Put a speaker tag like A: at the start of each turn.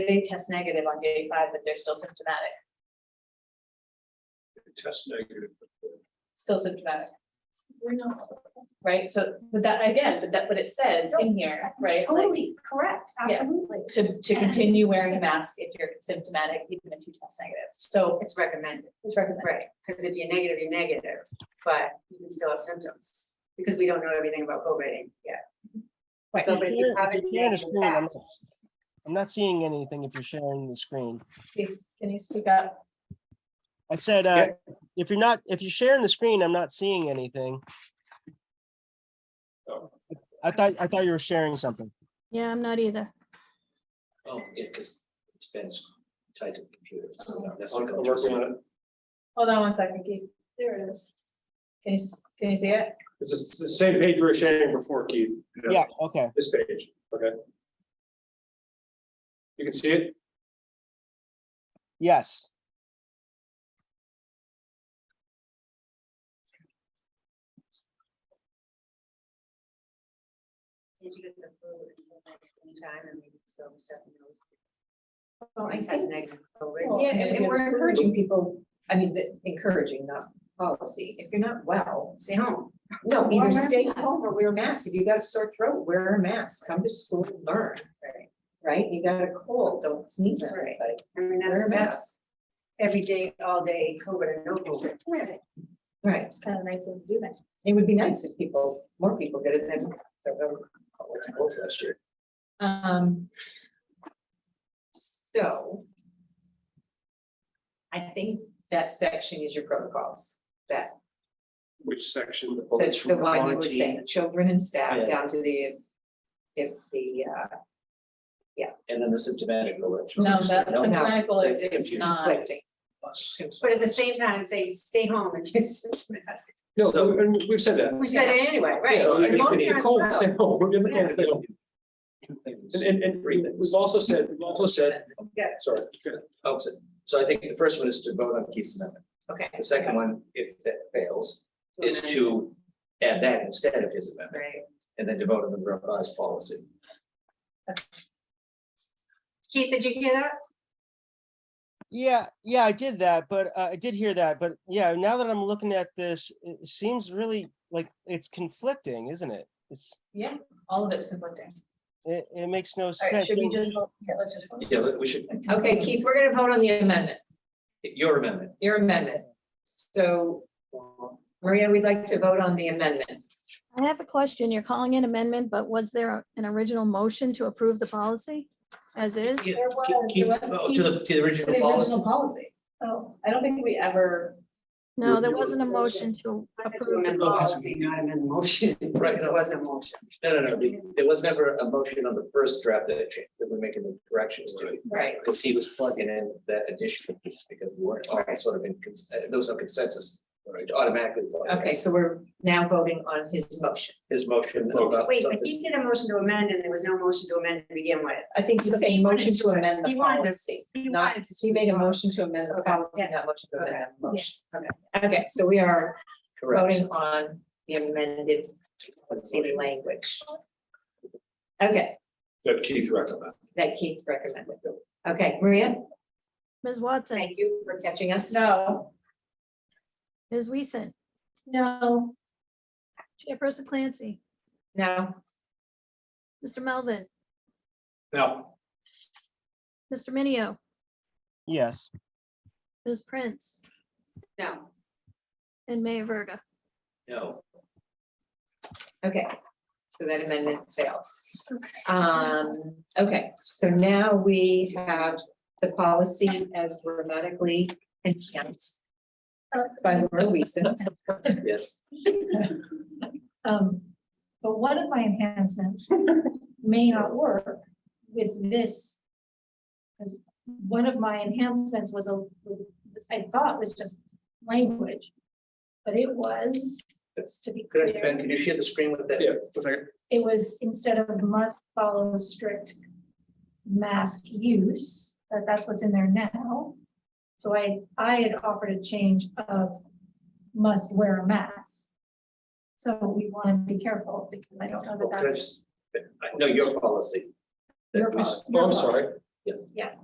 A: they test negative on day five, but they're still symptomatic,
B: test negative.
A: still symptomatic. We're not. Right, so, but that, again, but that, but it says in here, right? like,
C: Totally correct,
A: Yeah.
C: absolutely.
A: To, to continue wearing a mask if you're symptomatic, even if you test negative, so
D: It's recommended,
A: it's recommended.
D: right, because if you're negative, you're negative, but you can still have symptoms, because we don't know everything about COVID yet.
A: Right.
D: So,
E: You
D: but if
E: can't-
D: you have a
E: you can't
D: negative
E: screen, I'm
D: test-
E: not- I'm not seeing anything if you're sharing the screen.
A: Can you speak up?
E: I said, uh, if you're not, if you're sharing the screen, I'm not seeing anything.
B: Oh.
E: I thought, I thought you were sharing something.
F: Yeah, I'm not either.
G: Oh, yeah, because it's been tied to the computer. so not
B: I'm
G: necessarily
B: I'm
G: going to a
B: working
G: screen.
B: on it.
A: Hold on one second, Keith, there it is. Can you, s- can you see it?
B: It's the s- the same page we were sharing before, Keith.
E: Yeah, okay.
B: This page, okay. You can see it?
E: Yes.
D: Did you get the flu at any time, and maybe so Stephanie knows.
C: Well, I
D: Test
C: think,
D: negative for
A: Well,
D: COVID.
C: yeah, and- and we're encouraging people, I mean, the- encouraging, not policy. If you're not well,
D: Stay home.
C: no,
D: Or
C: either
D: wear a
C: stay
D: mask.
C: home or wear a mask. If you got a sore throat, wear a mask. Come to school and learn,
D: Right.
C: right? You got a cold, don't sneeze on
D: Right.
C: everybody.
D: I mean,
C: Wear
D: that's
C: a mask.
D: every day, all day, COVID and no COVID.
C: Right.
A: Kind of nice of you to do that.
C: It would be nice if people, more people did it than.
G: It's both last year.
C: Um. So. I think that section is your protocols, that,
B: Which section?
C: that's the one you were saying, children and
G: Yeah.
C: staff down to the. If the, uh,
G: And then the symptomatic. alert.
A: No, that
G: No,
A: symptomatic alert
G: It's
A: is
G: confusing.
A: not,
C: conflicting.
D: But at the same time, say, stay home if you're symptomatic.
B: No, and we've said that.
D: We said it anyway, right?
B: So even if
D: Pneumonia
B: you're
D: as
B: cold,
D: well.
B: stay home. If you're not,
D: Yeah.
B: stay home.
G: Two things.
B: And, and, and we've also said, we've also said,
D: Yeah.
B: sorry, good.
G: Oh, so- So I think the first one is to vote on Keith's amendment.
D: Okay.
G: The second one, if that fails, is to add that instead of his amendment
D: Right.
G: and then to vote on the revised policy.
D: Keith, did you hear that?
E: Yeah, yeah, I did that, but uh, I did hear that, but yeah, now that I'm looking at this, it seems really like it's conflicting, isn't it? It's,
A: yeah, all of it's conflicting.
E: it, it makes no
A: All right,
E: sense.
A: should we just, vote? yeah, let's just. vote.
G: Yeah, but we should,
C: Okay, Keith, we're gonna vote on the amendment,
G: your amendment.
C: your amendment. So Maria, we'd like to vote on the amendment.
F: I have a question. You're calling it amendment, but was there an original motion to approve the policy as is?
G: Keith,
A: There was- there
G: Keith,
A: was
G: oh,
A: Keith-
G: To the, to the
A: to
G: original
A: The original policy.
G: policy.
A: Oh, I don't think we ever,
F: No, there
G: you-
F: wasn't a motion to approve.
D: Amend
F: the
D: the
F: policy.
D: policy, not amend the motion.
G: Right.
D: Because it wasn't a motion.
G: No, no, no, the- there was never a motion on the first draft that it changed, that we're making the corrections to.
C: Right.
G: Because he was plugging in that additional piece because we weren't all sort of in, cons- uh, there was no consensus. right, to Automatically. plug in
C: Okay, so we're now voting on his motion.
G: His motion. about
D: Wait, but
G: something.
D: he did a motion to amend and there was no motion to amend to begin with.
C: I think it's a motion to amend the
D: He wanted to-
C: policy.
D: he
C: Not,
D: wanted to-
C: he made a motion to amend the
D: Okay,
C: policy,
D: yeah.
C: not motion to amend the
A: Okay.
C: motion. Okay, okay, so we are
G: Correct.
C: voting on the amended, let's see, language. Okay,
B: That Keith recommended.
C: that Keith recommended. Okay, Maria,
F: Ms. Watson,
C: thank you for catching us.
A: no.
F: Ms. Weason,
A: No.
F: Chairperson Clancy,
C: No,
F: Mr. Melvin,
B: Now,
F: Mr. Minio,
E: Yes.
F: Ms. Prince,
D: No.
F: and Mayor Verga.
G: No.
C: okay, so that amendment fails. Um, okay, so now we have the policy as grammatically enhanced by Laura Weason.
G: Yes.
H: Um, but one of my enhancements may not work with this. Because one of my enhancements was a, was- I thought was just language. But it was, just to be
G: Could I, Ben,
H: clear,
G: can you share the screen with that?
B: yeah, one second.
H: it was instead of must follow strict mask use, that that's what's in there now. So I, I had offered a change of must wear a mask. So we want to be careful because I don't know
G: Well,
H: that
G: could I
H: that's
G: just- I know your policy.
H: Your
G: That we s-
H: policy.
B: Oh, I'm sorry.
I: Yeah.
A: Yeah.